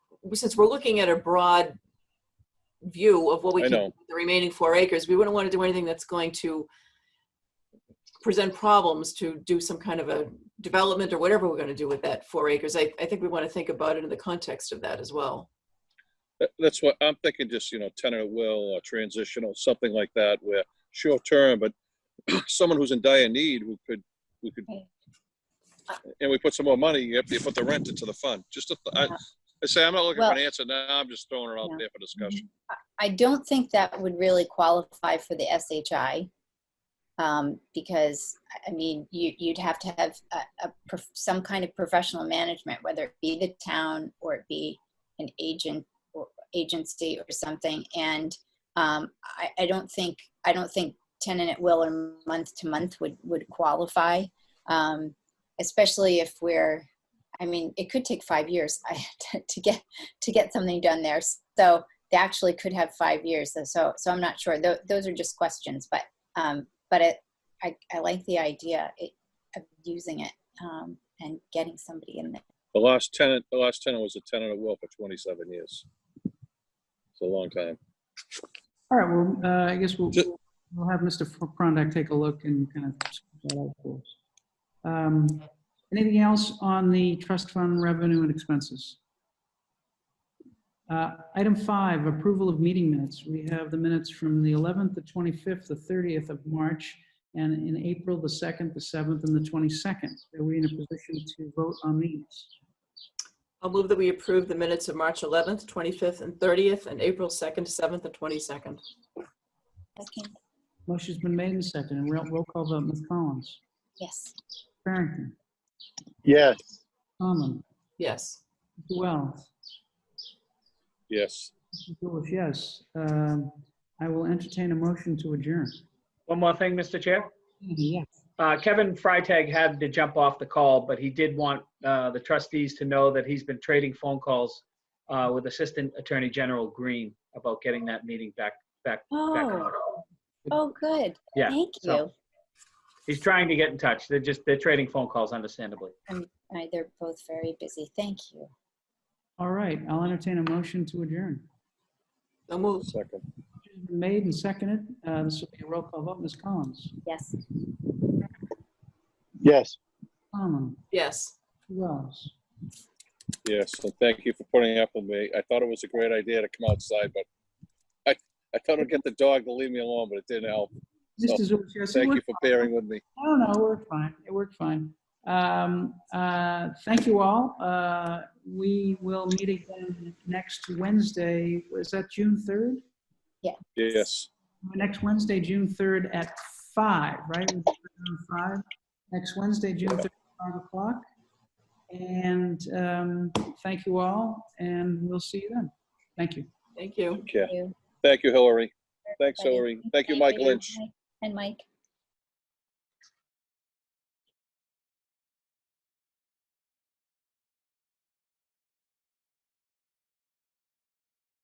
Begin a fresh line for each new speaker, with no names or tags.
since we're looking at a broad view of what we
I
can, do
know.
with the remaining four acres, we wouldn't want to do anything that's going to present problems to do some kind of a development or whatever we're going to do with that four acres. I, I think we want to think about it in the context of that as well.
That- That's what, I'm thinking just, you know, tenant of will or transitional, something like that, where short term, but someone who's in dire need, we could, we could, Uh, and we put some more money, you have to put the rent into the fund, just, a th- I, I say, I'm not looking for an
Well-
answer now, I'm just throwing it out
Yeah.
there for discussion.
I don't think that would really qualify for the SHI. Um, because I- I mean, you, you'd have to have a, a, prof- some kind of professional management, whether it be the town or it be an agent or agency or something. And um, I, I don't think I don't think tenant at will or month to month would would qualify, um, especially if we're. I mean, it could take five years to, to get to get something done there. So they actually could have five years. So- So, so I'm not sure. Tho- those are just questions, but, um, but it, I, I like the idea it- of using it um, and getting somebody in there.
The last tenant, the last tenant was a tenant of will for twenty-seven years. It's a long time.
All right, well, uh, I guess we'll,
Ju-
we'll have Mr. Prondak take a look and kind of scope that out for us. Um, Anything else on the trust fund revenue and expenses? Uh, Item five, approval of meeting minutes. We have the minutes from the 11th, the 25th, the 30th of March, and in April, the 2nd, the 7th, and the 22nd. Are we in a position to vote on these?
I'll move that we approve the minutes of March 11th, 25th, and 30th, and April 2nd, 7th, and 22nd.
Second.
Motion's been made and seconded, and roll roll call vote, Ms. Collins.
Yes.
Farrington.
yes,
Tomlin.
Yes.
Mr. Wells.
Yes,
Mr. Lewis, yes. Um, I will entertain a motion to adjourn.
One more thing, Mr. Chair.
Yes.
Uh, Kevin Freitag had to jump off the call, but he did want uh, the trustees to know that he's been trading phone calls uh, with Assistant Attorney General Green about getting that meeting back, back, back
Oh,
on.
oh, good.
Yeah,
Thank
so-
you.
He's trying to get in touch. They're just, they're trading phone calls understandably.
Uh, They're both very busy. Thank you.
All right, I'll entertain a motion to adjourn.
So moved.
second.
Motion's been Made and seconded. Uh, This will be a roll call vote. Ms. Collins.
Yes.
yes.
Tomlin.
Yes.
Wells.
Yes, and thank you for putting up with me. I thought it was a great idea to come outside, but I, I thought I'd get the dog to leave me alone, but it didn't help. So,
Mr. Zulish, yes. it
Thank you
worked-
for bearing with me.
No, no, it worked fine. It worked fine. Um, uh, Thank you all. Uh, We will meet again next Wednesday. Is that June 3rd?
Yes.
Next Wednesday, June 3rd at five, right? We put it on Five. Next Wednesday, June 3rd, at 5 o'clock. And um, thank you all, and we'll see you then. Thank you.
Thank you.
Okay.
You.
Thank you, Hillary. Thanks,
Everybody.
Hillary. Thank you, Mike Lynch.
And Mike.